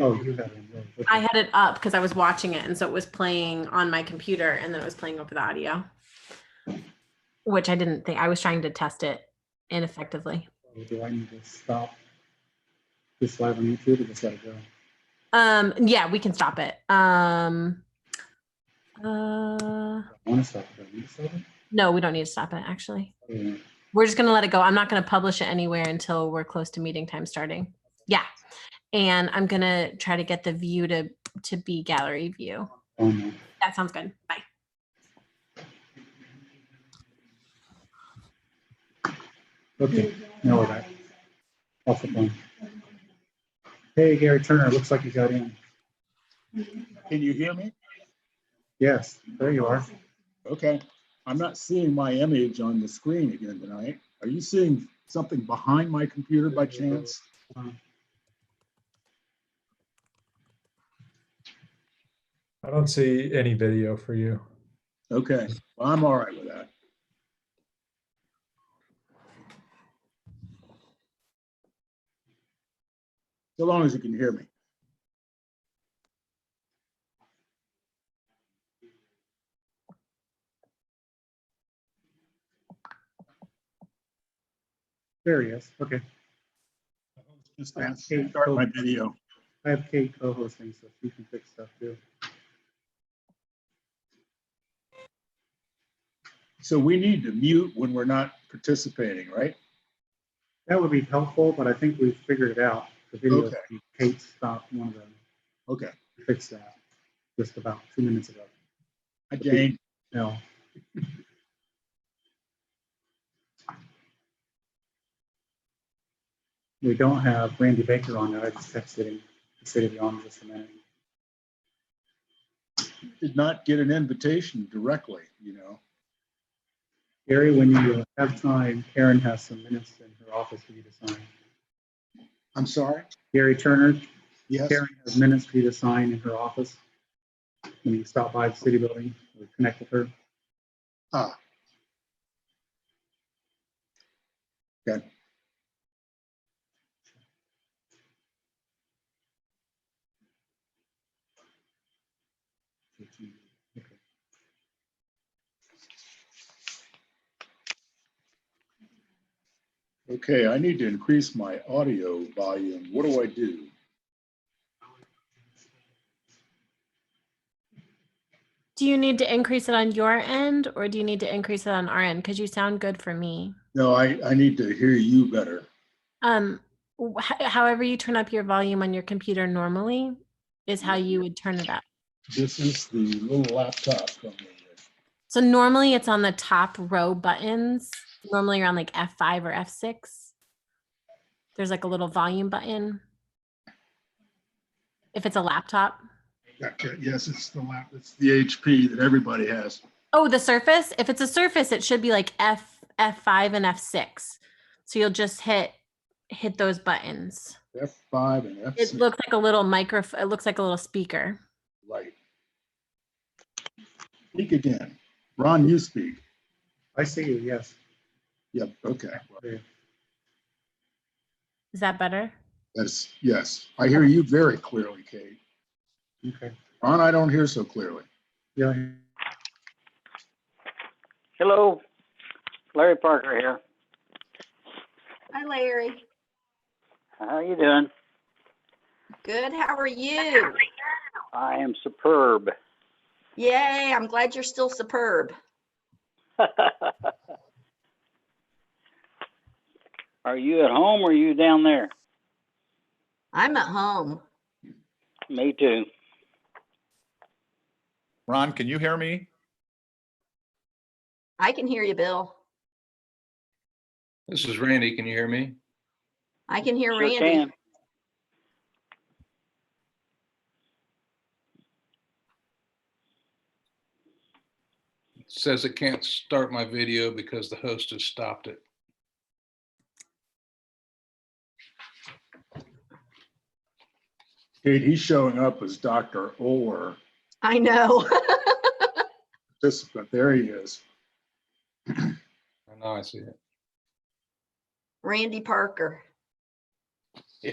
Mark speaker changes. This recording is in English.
Speaker 1: Oh, you had it. Okay.
Speaker 2: I had it up because I was watching it, and so it was playing on my computer, and then it was playing over the audio, which I didn't think I was trying to test it ineffectively.
Speaker 1: So Do I need to stop this live on YouTube or just let it go?
Speaker 2: Um, yeah, we can stop it. Um, uh,
Speaker 1: I want to stop it. Do I need to stop it? Oh,
Speaker 2: no, we don't need to stop it. Actually,
Speaker 1: Or do I-
Speaker 2: we're just gonna let it go. I'm not gonna publish it anywhere until we're close to meeting time starting. Yeah, and I'm gonna try to get the view to to be gallery view.
Speaker 1: Oh, no.
Speaker 2: That sounds good. Bye.
Speaker 1: Okay, now we're back. Off the phone. Hey, Gary Turner, looks like you got in.
Speaker 3: Can you hear me?
Speaker 1: Yes, there you are.
Speaker 3: Okay. I'm not seeing my image on the screen again tonight. Are you seeing something behind my computer by chance?
Speaker 4: I don't see any video for you.
Speaker 3: Okay, well, I'm all right with that. So long as you can hear me.
Speaker 1: There he is. Okay.
Speaker 3: Just
Speaker 1: Yeah.
Speaker 3: start my video.
Speaker 1: I have Kate co-hosting, so she can fix stuff too.
Speaker 3: So we need to mute when we're not participating, right?
Speaker 1: That would be helpful, but I think we've figured it out. The video,
Speaker 3: Okay.
Speaker 1: from Kate stopped one of them,
Speaker 3: Okay,
Speaker 1: fixed that just about two minutes ago.
Speaker 3: Hi, Jane.
Speaker 1: No. We don't have Randy Baker on there. I just texted him. He said he'd be on just a minute.
Speaker 3: did not get an invitation directly, you know?
Speaker 1: Gary, when you uh, have time, Karen has some minutes in her office for you to sign.
Speaker 3: I'm sorry?
Speaker 1: Gary Turner,
Speaker 3: Yes.
Speaker 1: Karen has minutes for you to sign in her office. When you stop by the city building, or connect with her.
Speaker 3: Ah. Good.
Speaker 1: Okay.
Speaker 3: Okay, I need to increase my audio volume. What do I do?
Speaker 2: Do you need to increase it on your end or do you need to increase it on our end? Because you sound good for me.
Speaker 3: No, I, I need to hear you better.
Speaker 2: Um, wh- h- however you turn up your volume on your computer normally is how you would turn it up.
Speaker 3: This is the little laptop from the,
Speaker 2: So normally it's on the top row buttons. Normally you're on like F5 or F6. There's like a little volume button. If it's a laptop.
Speaker 3: Okay, yes, it's the lap, it's the HP that everybody has.
Speaker 2: Oh, the surface. If it's a surface, it should be like F F5 and F6. So you'll just hit hit those buttons.
Speaker 3: F5 and F6.
Speaker 2: It looks like a little microphone. It looks like a little speaker.
Speaker 3: Right. Speak again. Ron, you speak.
Speaker 1: I see you, yes.
Speaker 3: Yep, okay.
Speaker 2: Is that better?
Speaker 3: That's, yes, I hear you very clearly, Kate.
Speaker 1: Okay.
Speaker 3: Ron, I don't hear so clearly.
Speaker 1: Yeah,
Speaker 5: Hello, Larry Parker here.
Speaker 6: Hi, Larry.
Speaker 5: How you doing?
Speaker 6: Good. How are you?
Speaker 5: I am superb.
Speaker 6: Yay. I'm glad you're still superb.
Speaker 5: are you at home or are you down there?
Speaker 6: I'm at home.
Speaker 5: Me too.
Speaker 7: Ron, can you hear me?
Speaker 6: I can hear you, Bill.
Speaker 8: This is Randy. Can you hear me?
Speaker 6: I can hear
Speaker 5: Sure
Speaker 6: Randy.
Speaker 5: can.
Speaker 8: It Says it can't start my video because the host has stopped it.
Speaker 3: Kate, he's showing up as Dr. Oler,
Speaker 6: I know.
Speaker 3: participant. There he is.
Speaker 8: I know I see it.
Speaker 6: Randy Parker.
Speaker 8: Yeah.